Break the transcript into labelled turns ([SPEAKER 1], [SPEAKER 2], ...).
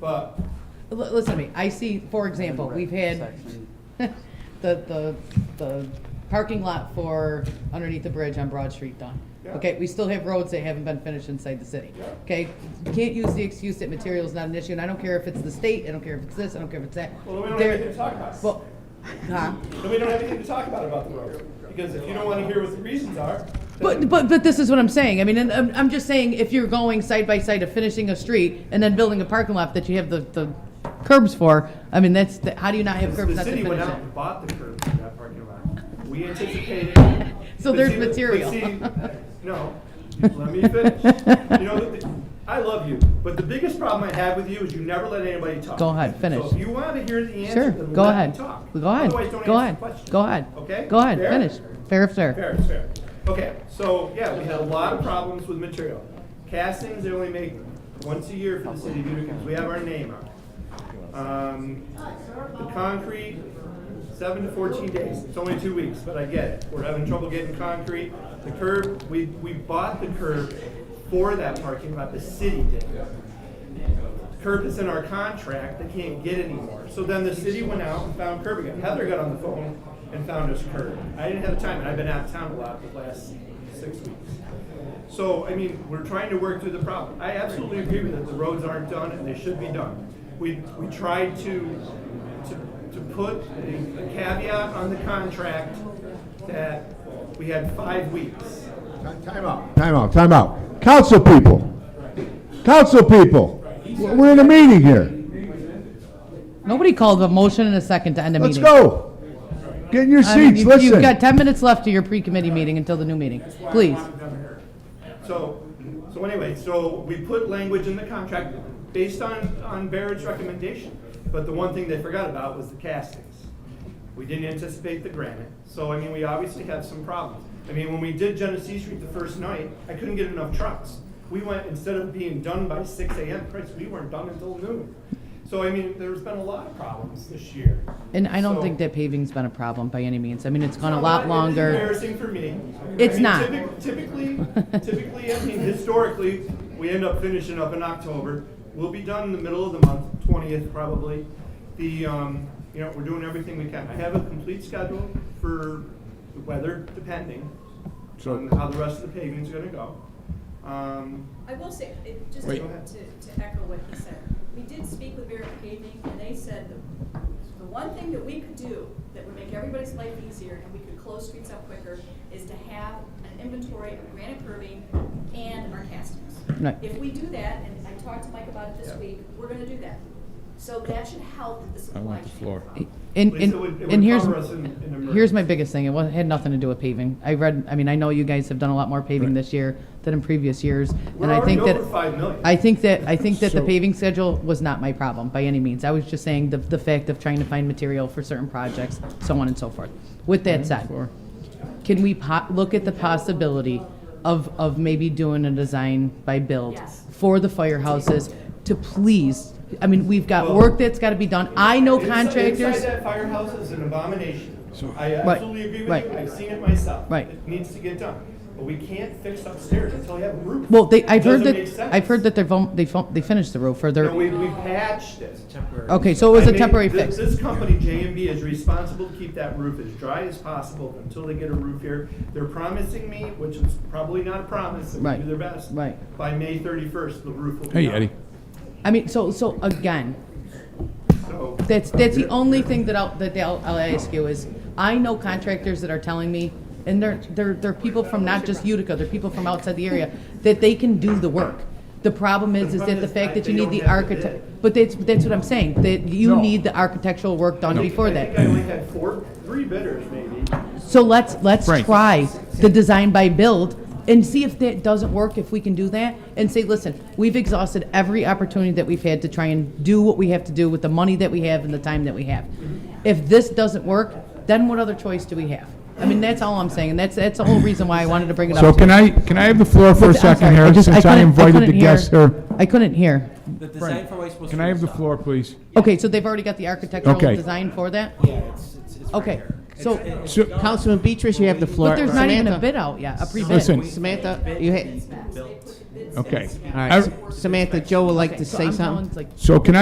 [SPEAKER 1] But
[SPEAKER 2] L- Listen to me, I see, for example, we've had the, the, the parking lot for underneath the bridge on Broad Street done.
[SPEAKER 1] Yeah.
[SPEAKER 2] Okay, we still have roads that haven't been finished inside the city.
[SPEAKER 1] Yeah.
[SPEAKER 2] Okay, you can't use the excuse that material's not an issue, and I don't care if it's the state, I don't care if it's this, I don't care if it's that.
[SPEAKER 1] well, we don't have
[SPEAKER 2] There-
[SPEAKER 1] anything to talk about.
[SPEAKER 2] Well, huh?
[SPEAKER 1] Then we don't have anything to talk about about the roads because if you don't want to hear what the reasons are, then
[SPEAKER 2] But, but, but this is what I'm saying. I mean, and I'm, I'm just saying if you're going side by side of finishing a street and then building a parking lot that you have the, the curbs for, I mean, that's, the- how do you not have curbs
[SPEAKER 1] the
[SPEAKER 2] not to
[SPEAKER 1] city
[SPEAKER 2] finish
[SPEAKER 1] went out
[SPEAKER 2] it?
[SPEAKER 1] and bought the curbs in that parking lot. We anticipated.
[SPEAKER 2] So
[SPEAKER 1] but
[SPEAKER 2] there's
[SPEAKER 1] see- but
[SPEAKER 2] material.
[SPEAKER 1] see- No, let me finish. You know, the- I love you, but the biggest problem I have with you is you never let anybody talk.
[SPEAKER 2] Go ahead, finish.
[SPEAKER 1] So if you want to hear the answer,
[SPEAKER 2] Sure,
[SPEAKER 1] then
[SPEAKER 2] go
[SPEAKER 1] let me
[SPEAKER 2] ahead.
[SPEAKER 1] talk.
[SPEAKER 2] Go ahead,
[SPEAKER 1] Otherwise, don't
[SPEAKER 2] go
[SPEAKER 1] answer
[SPEAKER 2] ahead,
[SPEAKER 1] the question.
[SPEAKER 2] go ahead.
[SPEAKER 1] Okay?
[SPEAKER 2] Go ahead,
[SPEAKER 1] Fair?
[SPEAKER 2] finish. Fair, sir.
[SPEAKER 1] Fair, fair. Okay, so, yeah, we had a lot of problems with material. Castings, they only make once a year for the city because we have our name on it. Um, the concrete, seven to fourteen days, it's only two weeks, but I get it, we're having trouble getting concrete. The curb, we, we bought the curb for that parking lot, the city did. Curb is in our contract, they can't get anymore, so then the city went out and found curb again, Heather got on the phone and found us curb. I didn't have time, and I've been out of town a lot the last six weeks. So, I mean, we're trying to work through the problem. I absolutely agree with that the roads aren't done and they should be done. We, we tried to, to, to put a a caveat on the contract that we had five weeks.
[SPEAKER 3] Time out, time out, time out. Council people, council people, we're in a meeting here.
[SPEAKER 2] Nobody called a motion and a second to end a meeting.
[SPEAKER 3] Let's go. Get in your
[SPEAKER 2] I mean,
[SPEAKER 3] seats,
[SPEAKER 2] you- You've got
[SPEAKER 3] listen.
[SPEAKER 2] ten minutes left to your pre-committee meeting until the new meeting, please.
[SPEAKER 1] So, so anyway, so we put language in the contract based on, on Barrett's recommendation. But the one thing they forgot about was the castings. We didn't anticipate the granite, so I mean, we obviously have some problems. I mean, when we did Genesee Street the first night, I couldn't get enough trucks. We went, instead of being done by six AM, Christ, we weren't done until noon. So I mean, there's been a lot of problems this year.
[SPEAKER 2] And I don't
[SPEAKER 1] So-
[SPEAKER 2] think that paving's been a problem by any means. I mean, it's gone a
[SPEAKER 1] no,
[SPEAKER 2] lot
[SPEAKER 1] it's
[SPEAKER 2] longer.
[SPEAKER 1] Embarrassing for me.
[SPEAKER 2] It's
[SPEAKER 1] I mean,
[SPEAKER 2] not.
[SPEAKER 1] typic- Typically, typically, I mean, historically, we end up finishing up in October. We'll be done in the middle of the month, twentieth probably. The, um, you know, we're doing everything we can. I have a complete schedule for the weather, depending
[SPEAKER 3] So-
[SPEAKER 1] on how the rest of the paving's gonna go. Um,
[SPEAKER 4] I will say, it- just to,
[SPEAKER 3] Wait.
[SPEAKER 4] to to echo what he said, we did speak with Barrett Paving, and they said the, the one thing that we could do that would make everybody's life easier and we could close streets up quicker is to have an inventory of granite curbing and our castings.
[SPEAKER 2] Right.
[SPEAKER 4] If we do that, and I talked to Mike about it this
[SPEAKER 1] Yeah.
[SPEAKER 4] week, we're gonna do that. So that should help the supply chain.
[SPEAKER 5] want the floor.
[SPEAKER 4] problem.
[SPEAKER 2] And,
[SPEAKER 1] at least
[SPEAKER 2] and,
[SPEAKER 1] it would, it
[SPEAKER 2] and
[SPEAKER 1] would
[SPEAKER 2] here's,
[SPEAKER 1] cover us in, in emergency.
[SPEAKER 2] Here's my biggest thing. It wa- had nothing to do with paving. I read, I mean, I know you guys have done a lot more paving this year than in previous years.
[SPEAKER 1] We're
[SPEAKER 2] and I
[SPEAKER 1] already
[SPEAKER 2] think that
[SPEAKER 1] over five million.
[SPEAKER 2] I think that, I think that the
[SPEAKER 5] So-
[SPEAKER 2] paving schedule was not my problem by any means. I was just saying the, the fact of trying to find material for certain projects, so on and so forth. With that said, can we po- look at the possibility of, of maybe doing a design by build?
[SPEAKER 4] Yes.
[SPEAKER 2] For the firehouses to please, I mean, we've got
[SPEAKER 1] Well-
[SPEAKER 2] work that's gotta be done. I know
[SPEAKER 1] Inside-
[SPEAKER 2] contractors.
[SPEAKER 1] Inside that firehouse is an abomination. I
[SPEAKER 2] Right,
[SPEAKER 1] absolutely agree with
[SPEAKER 2] right.
[SPEAKER 1] you, I've seen it myself.
[SPEAKER 2] Right.
[SPEAKER 1] It needs to get done, but we can't fix upstairs until we have a roof.
[SPEAKER 2] Well, they, I've
[SPEAKER 1] It doesn't
[SPEAKER 2] heard
[SPEAKER 1] make
[SPEAKER 2] that,
[SPEAKER 1] sense.
[SPEAKER 2] I've heard that they've, um, they've, um, they finished the roof, or
[SPEAKER 1] No,
[SPEAKER 2] they're,
[SPEAKER 1] we, we patched it.
[SPEAKER 2] okay, so it was
[SPEAKER 1] I
[SPEAKER 2] a
[SPEAKER 1] mean,
[SPEAKER 2] temporary
[SPEAKER 1] thi-
[SPEAKER 2] fix.
[SPEAKER 1] This company, JMB, is responsible to keep that roof as dry as possible until they get a roof here. They're promising me, which is probably not a promise, they
[SPEAKER 2] Right,
[SPEAKER 1] do their best.
[SPEAKER 2] right.
[SPEAKER 1] By May thirty-first, the roof will be
[SPEAKER 5] Hey,
[SPEAKER 1] up.
[SPEAKER 5] Eddie.
[SPEAKER 2] I mean, so, so again,
[SPEAKER 1] So,
[SPEAKER 2] that's, that's the only thing that I'll, that I'll, I'll ask you is, I know contractors that are telling me, and they're, they're, they're people from not just Utica, they're people from outside the area, that they can do the work. The problem is, is that the fact that you need the architect, but that's, that's what I'm saying, that you
[SPEAKER 3] No.
[SPEAKER 2] need the architectural work done before
[SPEAKER 1] I think I
[SPEAKER 2] that.
[SPEAKER 1] only had four, three bidders maybe.
[SPEAKER 2] So let's, let's
[SPEAKER 5] Frank.
[SPEAKER 2] try the design by build and see if that doesn't work, if we can do that. And say, listen, we've exhausted every opportunity that we've had to try and do what we have to do with the money that we have and the time that we have. If this doesn't work, then what other choice do we have? I mean, that's all I'm saying, and that's, that's the whole reason why I wanted to bring it up.
[SPEAKER 5] So
[SPEAKER 2] to
[SPEAKER 5] can
[SPEAKER 2] you.
[SPEAKER 5] I, can I have the floor for
[SPEAKER 2] I'm
[SPEAKER 5] a
[SPEAKER 2] sorry,
[SPEAKER 5] second here,
[SPEAKER 2] just-
[SPEAKER 5] since I
[SPEAKER 2] couldn't-
[SPEAKER 5] invited the
[SPEAKER 2] couldn't hear-
[SPEAKER 5] guests here?
[SPEAKER 2] I couldn't hear.
[SPEAKER 6] The design for wastewater.
[SPEAKER 5] Can I have the floor, please?
[SPEAKER 2] Okay, so they've already got the architectural
[SPEAKER 5] Okay.
[SPEAKER 2] design for that?
[SPEAKER 6] Yeah, it's, it's, it's right
[SPEAKER 2] Okay,
[SPEAKER 6] here.
[SPEAKER 2] so-
[SPEAKER 6] It's- it's
[SPEAKER 5] So-
[SPEAKER 6] done.
[SPEAKER 7] Councilman Beatrice, you have the floor.
[SPEAKER 2] But there's not even a
[SPEAKER 7] Samantha-
[SPEAKER 2] bid out yet, a pre-bid.
[SPEAKER 5] Listen.
[SPEAKER 7] Samantha, you had-
[SPEAKER 6] It's been built.
[SPEAKER 5] Okay.
[SPEAKER 7] All
[SPEAKER 5] I-
[SPEAKER 7] right, Samantha, Joe would like
[SPEAKER 2] Okay,
[SPEAKER 7] to
[SPEAKER 2] so
[SPEAKER 7] say
[SPEAKER 2] I'm telling,
[SPEAKER 7] something.
[SPEAKER 2] it's like,
[SPEAKER 5] So can I?